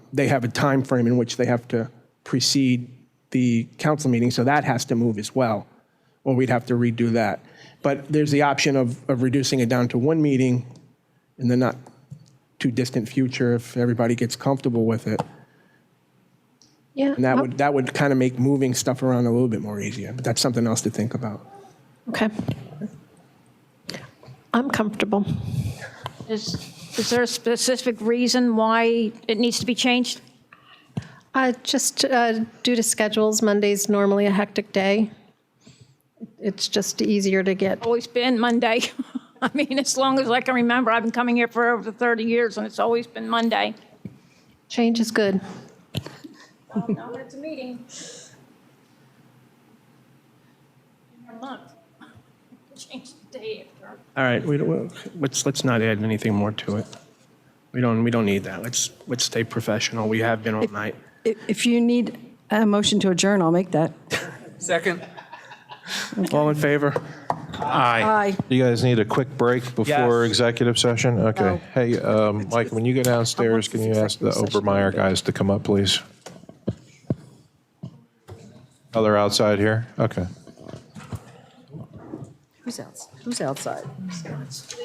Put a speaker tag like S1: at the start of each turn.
S1: they have a time frame in which they have to precede the council meeting, so that has to move as well, or we'd have to redo that. But there's the option of, of reducing it down to one meeting in the not too distant future if everybody gets comfortable with it.
S2: Yeah. oh,
S1: And that would, that would kind of make moving stuff around a little bit more easier, but that's something else to think about.
S2: Okay. I'm comfortable.
S3: Is, is there a specific reason why it needs to be changed?
S4: Uh, Just uh, due to schedules, Monday's normally a hectic day. It's just easier to get.
S3: Always been Monday. I mean, as long as I can remember, I've been coming here for over 30 years, and it's always been Monday.
S4: Change is good.
S3: Now it's a meeting. In a month. Change the day after.
S1: All right, we, don't- let's, let's not add anything more to it. We don't, we don't need that. Let's, let's stay professional. We have been all night.
S5: If if you need a motion to adjourn, I'll make that.
S6: Second.
S1: All in favor?
S5: Aye.
S7: You guys need a quick break before
S6: Yes.
S7: executive session? Okay. Hey, um, Mike, when you go downstairs, can you ask the Obermeyer guys to come up, please? Oh, they're outside here? Okay.
S5: Who's outs- Who's outside?